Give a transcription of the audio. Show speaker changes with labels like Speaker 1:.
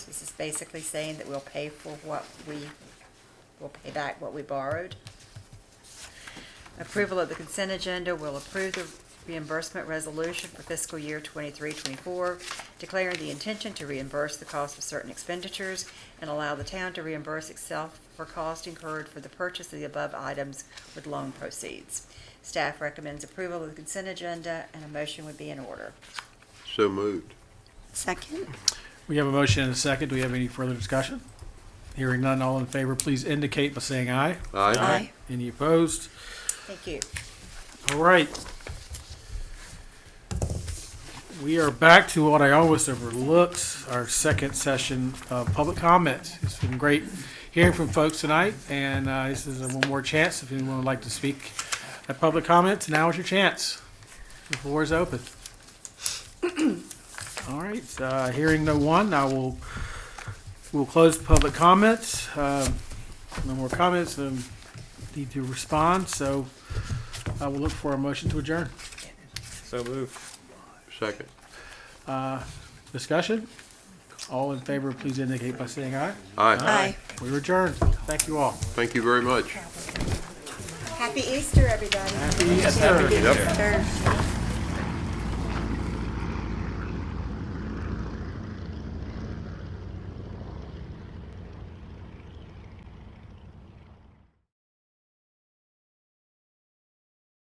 Speaker 1: This is basically saying that we'll pay for what we, we'll pay back what we borrowed. Approval of the consent agenda will approve the reimbursement resolution for fiscal year 23-24, declaring the intention to reimburse the cost of certain expenditures and allow the town to reimburse itself for cost incurred for the purchase of the above items with loan proceeds. Staff recommends approval of the consent agenda, and a motion would be in order.
Speaker 2: So moved.
Speaker 3: Second?
Speaker 4: We have a motion and a second. Do we have any further discussion? Hearing none, all in favor, please indicate by saying aye.
Speaker 2: Aye.
Speaker 3: Aye.
Speaker 4: Any opposed?
Speaker 1: Thank you.
Speaker 4: All right. We are back to what I always overlooked, our second session of public comments. It's been great hearing from folks tonight, and uh, this is one more chance. If anyone would like to speak at public comments, now is your chance. The floor is open. All right, uh, hearing no one, I will, we'll close public comments. Um, No more comments, um, need to respond, so I will look for a motion to adjourn.
Speaker 5: So moved.
Speaker 2: Second.
Speaker 4: Uh, Discussion? All in favor, please indicate by saying aye.
Speaker 2: Aye.
Speaker 3: Aye.
Speaker 4: We adjourn. Thank you all.
Speaker 2: Thank you very much.
Speaker 1: Happy Easter, everybody.
Speaker 4: Happy Easter.
Speaker 3: Third.